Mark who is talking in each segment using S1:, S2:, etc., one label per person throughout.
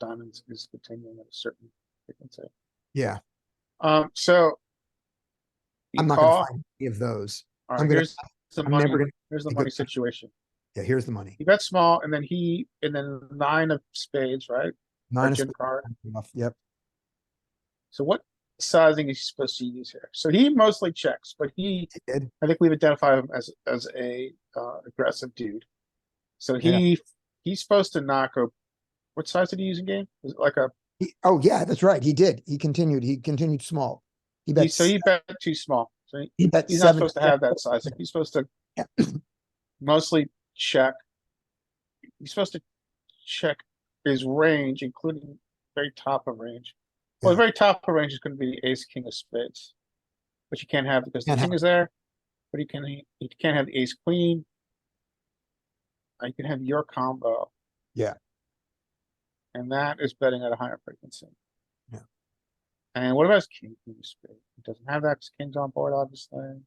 S1: diamonds is continuing at a certain frequency.
S2: Yeah,
S1: Um, so. you
S2: I'm not gonna
S1: call.
S2: find any of those.
S1: All
S2: I'm
S1: right,
S2: gonna-
S1: here's the
S2: I'm never
S1: money,
S2: gonna,
S1: here's the
S2: think
S1: money
S2: of that.
S1: situation.
S2: yeah, here's the money.
S1: He bet small and then he, and then nine of spades, right? Or
S2: Nine of
S1: gin
S2: spades,
S1: card.
S2: enough, yep,
S1: So what sizing is he supposed to use here? So he mostly checks, but he,
S2: he did.
S1: I think we've identified him as, as a, uh, aggressive dude. So
S2: Yeah.
S1: he, he's supposed to knock a, what size did he use in game? Was it like a,
S2: He, oh, yeah, that's right, he did. He continued, he continued small. He
S1: he-
S2: bet,
S1: so he bet too small. So he-
S2: he bet
S1: he's not
S2: seven.
S1: supposed to have that sizing. He's supposed to
S2: Yeah.
S1: mostly check. He's supposed to check his range, including very top of range. Well, the
S2: Yeah.
S1: very top of range is gonna be ace, king of spades. Which you can't have because the
S2: Can't
S1: king
S2: have-
S1: is there, but you can, you can't have ace, queen. Uh, You can have your combo.
S2: Yeah.
S1: And that is betting at a higher frequency.
S2: Yeah.
S1: And what about his king, queen of spades? He doesn't have that, 'cause king's on board, obviously.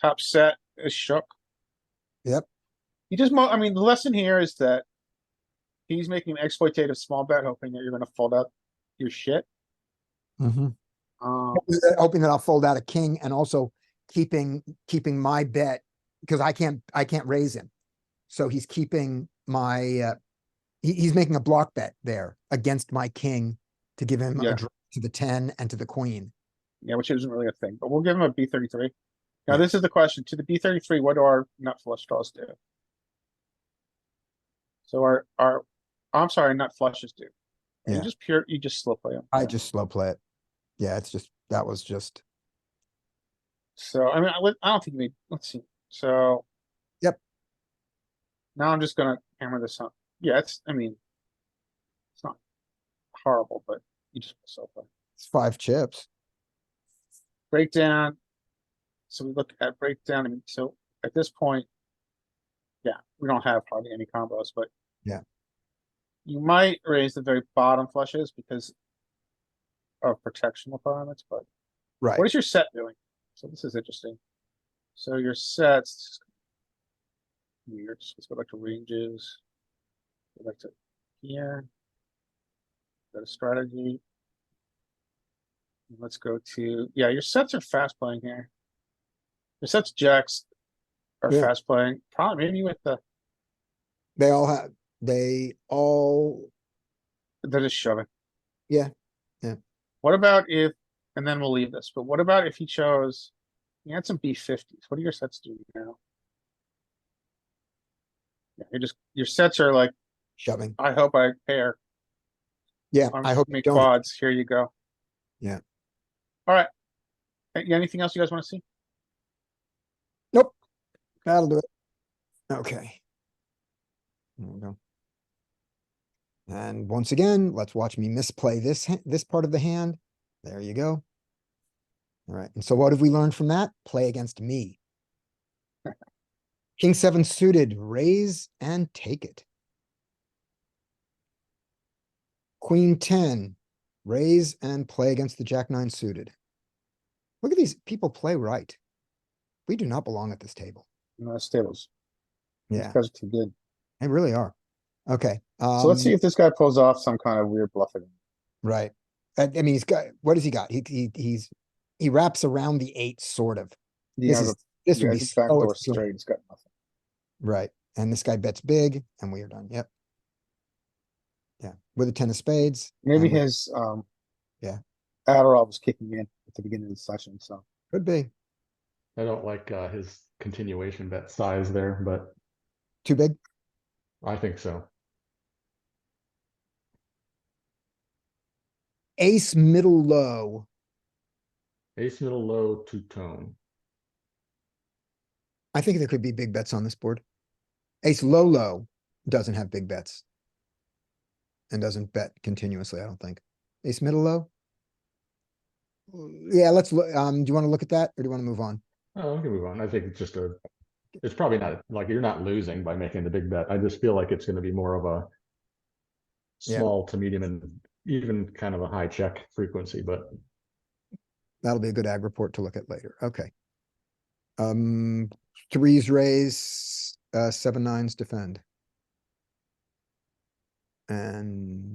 S1: Top set is shook.
S2: Yep.
S1: You just, mo- I mean, the lesson here is that he's making an exploitative small bet, hoping that you're gonna fold up your shit.
S2: Mhm.
S1: Um,
S2: Hoping that- Hoping that I'll fold out a king and also keeping, keeping my bet, because I can't, I can't raise him. So he's keeping my, uh, he, he's making a block bet there against my king to give him
S1: Yeah.
S2: a draw to the ten and to the queen.
S1: yeah, which isn't really a thing, but we'll give him a B thirty-three. Now, this is the question. To the B thirty-three, what do our nut flush draws do? So our, our, I'm sorry, nut flushes do. You
S2: Yeah.
S1: just pure, you just slip play 'em.
S2: I just slow play it. Yeah, it's just, that was just,
S1: So, I mean, I would, I don't think we, let's see, so.
S2: Yep.
S1: Now I'm just gonna hammer this up. Yeah, it's, I mean. It's not horrible, but you just, so,
S2: it's five chips.
S1: breakdown. So we look at breakdown, I mean, so at this point. Yeah, we don't have hardly any combos, but.
S2: Yeah.
S1: You might raise the very bottom flushes because. Of protection requirements, but.
S2: Right.
S1: What is your set doing? So this is interesting. So your sets. Weird, so let's go back to ranges. Go back to here. Go to strategy. And Let's go to, yeah, your sets are fast playing here. Your sets jacks are
S2: Yeah.
S1: fast playing, probably maybe with the,
S2: They all have, they all,
S1: they're just shoving.
S2: Yeah, yeah.
S1: What about if, and then we'll leave this, but what about if he chose, he had some B fifties, what do your sets do now? Yeah, you're just, your sets are like,
S2: shoving.
S1: I hope I pair,
S2: Yeah,
S1: I'm
S2: I hope you
S1: make
S2: don't.
S1: quads, here you go.
S2: Yeah.
S1: Alright. Anything else you guys wanna see?
S2: That'll do it. Okay. There we go. And once again, let's watch me misplay this, ha- this part of the hand. There you go. All right, and so what have we learned from that? Play against me. King seven suited, raise and take it. Queen ten, raise and play against the jack nine suited. Look at these people play right. We do not belong at this table.
S1: No, it's tables,
S2: Yeah.
S1: these guys are too good.
S2: They really are. Okay.
S1: So let's see
S2: um,
S1: if this guy pulls off some kind of weird bluffing.
S2: Right. I, I mean, he's got, what has he got? He, he, he's, he wraps around the eight, sort of.
S1: He
S2: This
S1: has
S2: is,
S1: a-
S2: this
S1: he
S2: would be
S1: has a
S2: so
S1: backdoor
S2: extreme.
S1: straight, he's got nothing.
S2: Right. And this guy bets big and we are done. Yep. Yeah. With a ten of spades.
S1: Maybe
S2: and we-
S1: his, um.
S2: Yeah.
S1: Adderall was kicking in at the beginning of the session, so.
S2: Could be.
S3: I don't like uh, his continuation bet size there, but
S2: Too big.
S3: I think so.
S2: Ace middle low.
S3: Ace middle low two tone.
S2: I think there could be big bets on this board. Ace low, low doesn't have big bets. And doesn't bet continuously, I don't think. Ace middle low? Mm, Yeah, let's look, um, do you wanna look at that or do you wanna move on?
S3: Oh, we can move on. I think it's just a. It's probably not like you're not losing by making the big bet. I just feel like it's going to be more of a
S2: Yeah.
S3: small to medium and even kind of a high check frequency, but
S2: That'll be a good ag report to look at later, okay. Um, threes raise, uh, seven nines defend. And